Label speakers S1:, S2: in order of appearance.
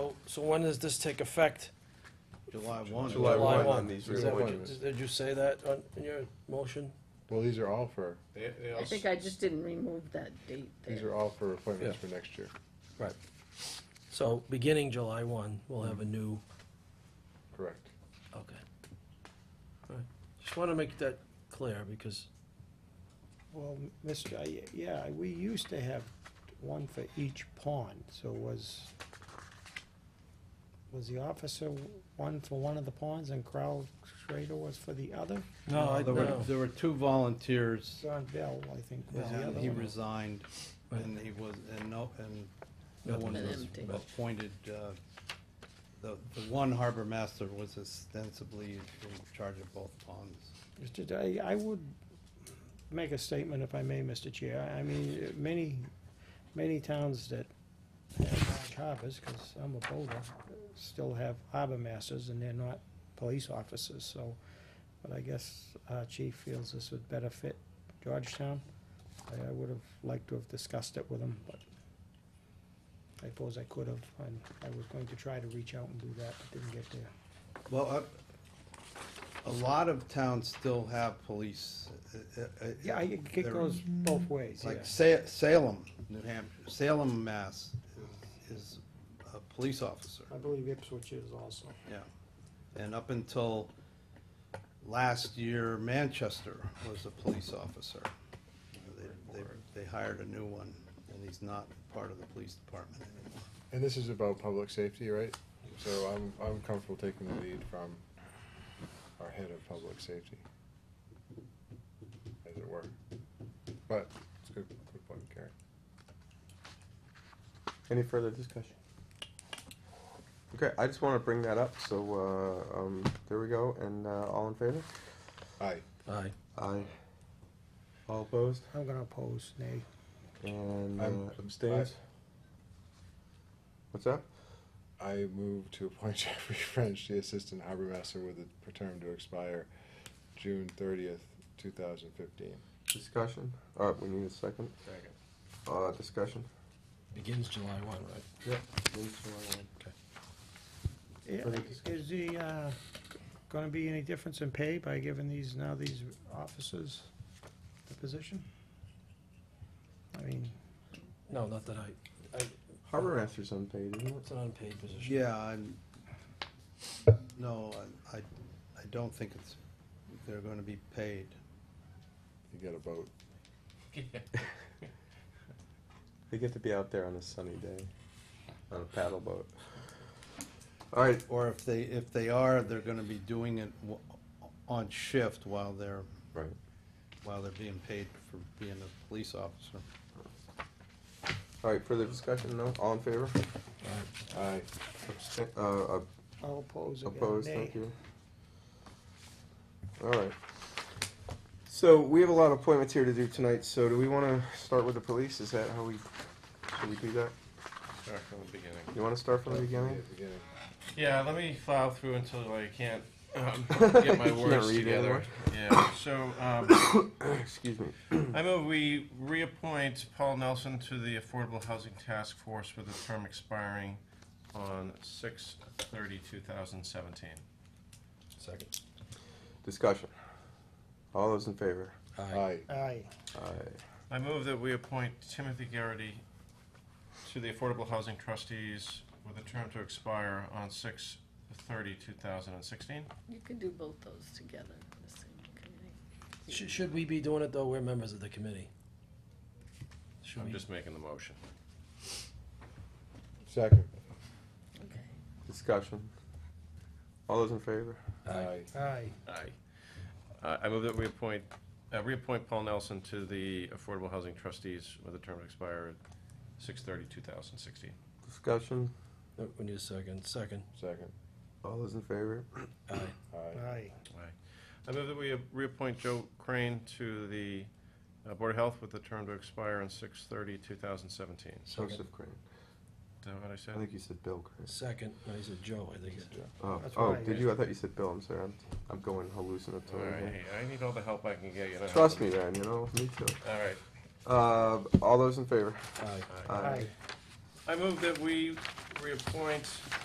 S1: So when does this take effect?
S2: July one.
S3: July
S1: July
S3: one
S1: one.
S3: on these
S1: Is that what you-
S3: reappointments.
S1: Did you say that on, in your motion?
S3: Well, these are all for,
S2: They, they
S4: I
S2: also,
S4: think I just didn't remove that date
S3: these
S4: there.
S3: are all for appointments for next year,
S1: Right. So beginning July one, we'll have a new,
S3: correct?
S1: okay. All right. Just wanna make that clear because,
S5: Well, Mr., I- yeah, we used to have one for each pond, so was, was the officer one for one of the ponds and Crowell Schrader was for the other?
S1: No, I-
S2: there were,
S1: no.
S2: there were two volunteers,
S5: John Bell, I think, was the
S2: and
S5: other
S2: he
S5: one.
S2: resigned, and he was, and no, and no
S1: Nothing
S2: one
S4: been
S2: was
S4: empty.
S2: appointed, uh, the, the one harbor master was ostensibly in charge of both ponds.
S5: Mr. Day, I would make a statement if I may, Mr. Chair. I mean, many, many towns that have large harbors, because I'm a boulder, still have harbor masters and they're not police officers, so. But I guess our chief feels this would better fit Georgetown. I, I would have liked to have discussed it with him, but I suppose I could have, and I was going to try to reach out and do that, but didn't get there.
S2: Well, I- a lot of towns still have police. uh, uh, uh,
S5: Yeah, I-
S2: they're-
S5: it goes both
S2: It's
S5: ways, yeah.
S2: like Sa- Salem, New Hampshire, Salem, Mass, is, is a police officer,
S5: I believe Ipswich is also.
S2: yeah. And up until last year, Manchester was a police officer. They, they, they hired a new one, and he's not part of the police department anymore.
S3: And this is about public safety, right? So I'm, I'm comfortable taking the lead from our head of public safety. As it were. But, it's a good, good point, Gary.
S6: Any further discussion? Okay, I just want to bring that up, so, uh, um, there we go, and, uh, all in favor?
S3: Aye.
S1: aye.
S6: Aye. All opposed?
S5: I'm gonna oppose, nay.
S6: And uh,
S3: I'm-
S6: abstains? What's up?
S3: I move to appoint Jeffrey French the Assistant Harbor Master with a term to expire June thirtieth, two thousand fifteen.
S6: Discussion? Uh, we need a second.
S3: Second.
S6: Uh, discussion?
S1: Begins July one, right?
S5: Yeah, Is the, uh, gonna be any difference in pay by giving these, now these officers the position? I mean,
S1: No, not that I, I,
S6: Harbor master's unpaid, isn't it?
S1: it's an unpaid position.
S2: Yeah, I'm, no, I, I, I don't think it's, they're gonna be paid.
S3: You get a vote.
S6: They get to be out there on a sunny day, on a paddle boat. All right,
S2: Or if they, if they are, they're gonna be doing it w- on shift while they're,
S6: right.
S2: while they're being paid for being a police officer.
S6: All right, further discussion, no? All in favor?
S3: Aye.
S6: Abstain, uh, ab-
S5: I'll oppose again, nay.
S6: Opposed, thank you. All right. So we have a lot of appointments here to do tonight, so do we want to start with the police? Is that how we, should we do that?
S7: Start from the beginning.
S6: You want to start from the
S3: Yeah,
S6: beginning?
S3: beginning.
S7: Yeah, let me file through until I can't um, get my
S6: You can't
S7: words
S6: read
S7: together.
S6: anymore?
S7: Yeah, so um,
S6: Excuse me.
S7: I move we reappoint Paul Nelson to the Affordable Housing Task Force with a term expiring on 6 2017
S1: Second.
S6: Discussion. All those in favor?
S1: Aye.
S3: Aye.
S5: Aye,
S6: Aye.
S7: I move that we appoint Timothy Garrity to the Affordable Housing Trustees with a term to expire on 6 2016
S4: You could do both those together, the same committee.
S1: Should, should we be doing it though? We're members of the committee. Should
S7: I'm
S1: we?
S7: just making the motion.
S3: Second.
S4: Okay.
S6: Discussion. All those in favor?
S3: Aye.
S5: aye,
S7: Aye. Uh, I move that we appoint, uh, reappoint Paul Nelson to the Affordable Housing Trustees with a term to expire 2016.
S6: Discussion.
S1: No, We need a second, second.
S3: Second.
S6: All those in favor?
S1: Aye.
S3: Aye.
S5: aye,
S7: I move that we reappoint Joe Crane to the uh, Board of Health with a term to expire on 6 2017 Is
S1: Second.
S6: Joseph Crane.
S7: that what I
S6: I
S7: said?
S6: think you said Bill Crane.
S1: Second, no, he said Joe, I think. he said.
S6: Oh,
S5: That's
S6: oh,
S5: right.
S6: did you? I thought you said Bill. I'm sorry. I'm, I'm going
S7: All
S6: hallucinatory.
S7: right,
S6: here.
S7: hey, I need all the help I can get, you know.
S6: Trust me, man. You know, me too.
S7: All right.
S6: Uh, all those in favor?
S1: Aye.
S7: Aye.
S5: aye,
S7: I move that we reappoint